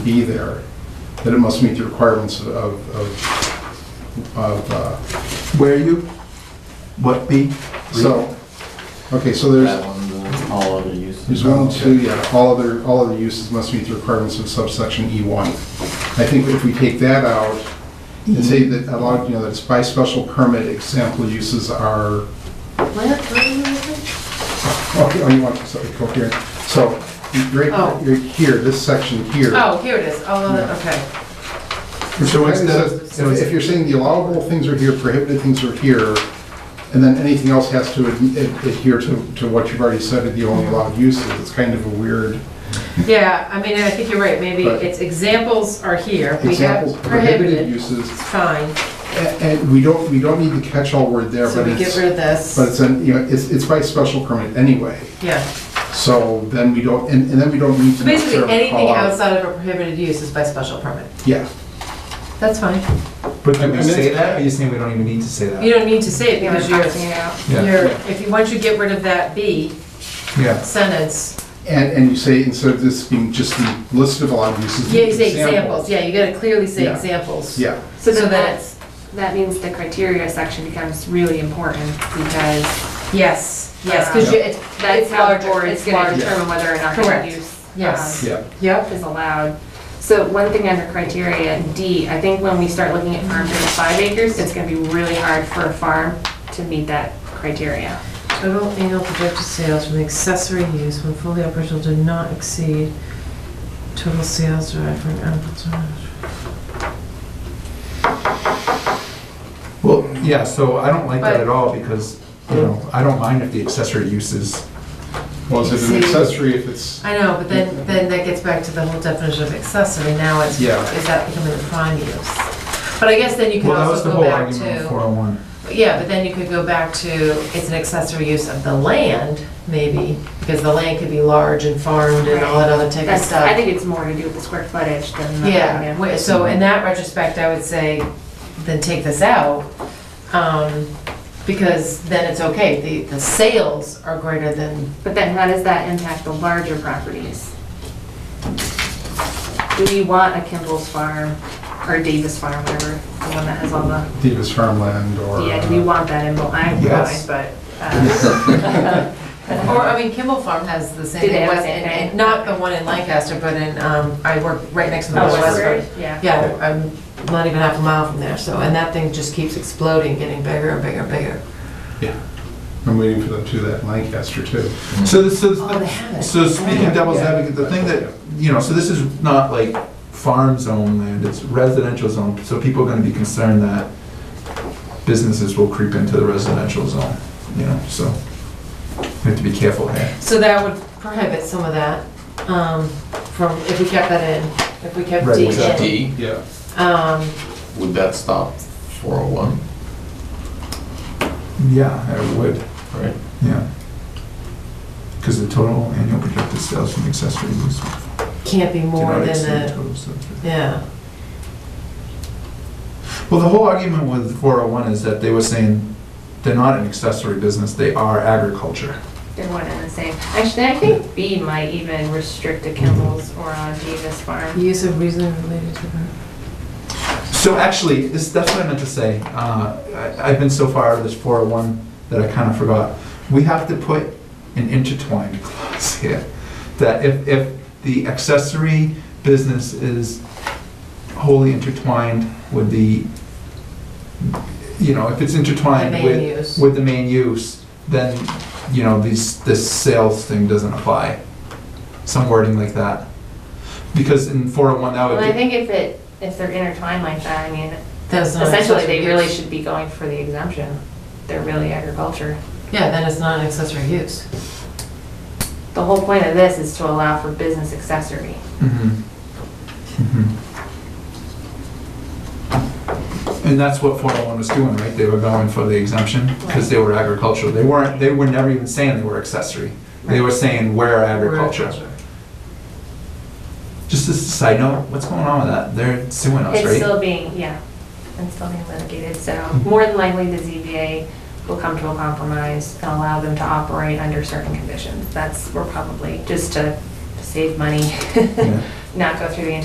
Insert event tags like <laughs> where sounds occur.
be there, that it must meet the requirements of, of, of, uh, Where you? What B? so, okay, so there's, That one, uh, all other uses. there's one, two, yeah, all other, all other uses must meet the requirements of subsection E1. I think if we take that out and say that a lot, you know, that it's by special permit, example uses are, Where, where are you looking? okay, oh, you want something coherent. So, right, Oh. right here, this section here. Oh, here it is, oh, okay. So instead instead of- of, if if you're saying the allowable things are here, prohibited things are here, and then anything else has to ad- ad- adhere to, to what you've already said are the only allowed uses, it's kind of a weird. Yeah, I mean, I think you're right, maybe But- it's examples are here, we Examples, have prohibited prohibited, uses, it's fine, a- and we don't, we don't need the catch-all word there, so but we get it's, rid of this. but it's, an- you know, it's, it's by special permit anyway. Yeah, So then we don't, and, and then we don't need so to basically, necessarily anything call out. outside of a prohibited use is by special permit, Yeah, that's fine. But I do we mean, say it's- that, or you saying we don't even need to say that? You don't need to say it because you're, Yeah. you're, if you, once you get rid of that B Yeah, sentence, and, and you say, instead of this being just the list of allowed uses. yeah, you say examples, yeah, you gotta clearly say Yeah. examples. Yeah. So So that- then that's, that means the criteria section becomes really important because Yes, yes, because Um, you, it's, that's it's how larger, boards Uh, it's gonna will Yeah. determine whether or not that Correct. use. Yes. um, Yeah, Yep, Is allowed. So one thing under criteria D, I think when we start looking at farms over five acres, it's gonna be really hard for a farm to meet that criteria. total annual projected sales from the accessory use when fully operational do not exceed total sales derived from agriculture. well, yeah, so I don't like that But- at all, because, you know, I don't mind if the accessory uses, well, is it an accessory if it's, I know, but then, then that gets back to the whole definition of accessory, now it's, is Yeah. that becoming the prime use? But I guess then you could well, that was also the go whole back argument oh of to. 401. Yeah, but then you could go back to, it's an accessory use of the land, maybe, because the land could be large and farmed and all that other type of That's- stuff. I think it's more to do with the square footage than. the Yeah, revenue. wait, so in that retrospect, I would say, then take this out, um, because then it's okay, the, the sales are greater than, But then how does that impact the larger properties? Do you want a Kimball's Farm or Davis Farm, whatever, the one that has all the, Davis farmland or? uh, yeah, do you want that in, Bull- I don't know, uh, Yes. but, <laughs> <laughs> uh, or, I mean, Kimball Farm has the same. Do they have the West- same and- and thing? Not the one in Lancaster, but in, um, I work right next to the oh, Westford. Westford, yeah. Yeah, I'm not even half a mile from there, so, and that thing just keeps exploding, getting bigger and bigger and bigger. <laughs> I'm waiting for them to do that in Lancaster too. So, this- so, Oh, they have it. so speaking devil's Yeah. advocate, the thing that, you know, so this is not like farm zone land, it's residential zone, so people are gonna be concerned that businesses will creep into the residential zone, you know, so we have to be careful here. So that would prohibit some of that, um, from, if we kept that in, if we kept Right, D in. exactly. D, Yeah. Um, would that stop 401, Yeah, I would. right? Yeah. Because the total annual projected sales from accessory use do can't be more not than exceed the, total sales. yeah, Well, the whole argument with 401 is that they were saying they're not an accessory business, they are agriculture. They're one and the same. Actually, I think B might even restrict a Kimball's or a Davis Farm. use of reason related to her. So actually, this, that's what I meant to say. Uh, I- I've been so far out of this 401 that I kind of forgot. We have to put an intertwined clause here, that if, if the accessory business is wholly intertwined with the, you know, if it's The intertwined main with, use. with the main use, then, you know, these, this sales thing doesn't apply. Some wording like that. Because in 401, that would Well, be. I think if it, if they're intertwined like that, I mean, That's not an essentially, they accessory really use. should be going for the exemption. They're really agriculture. Yeah, then it's not an accessory use. The whole point of this is to allow for business accessory. Mhm. Mhm. And that's what 401 was doing, right? They were going for the exemption because they were agricultural. They weren't, they were never even saying they were accessory. They were saying we're agriculture. Just as a side note, what's going on with that? They're suing us, It's right? still being, yeah, it's still being litigated, so more than likely the ZBA will come to a compromise and allow them to operate under certain conditions. That's, we're probably, just to to save money, <laughs> Yeah. not go through the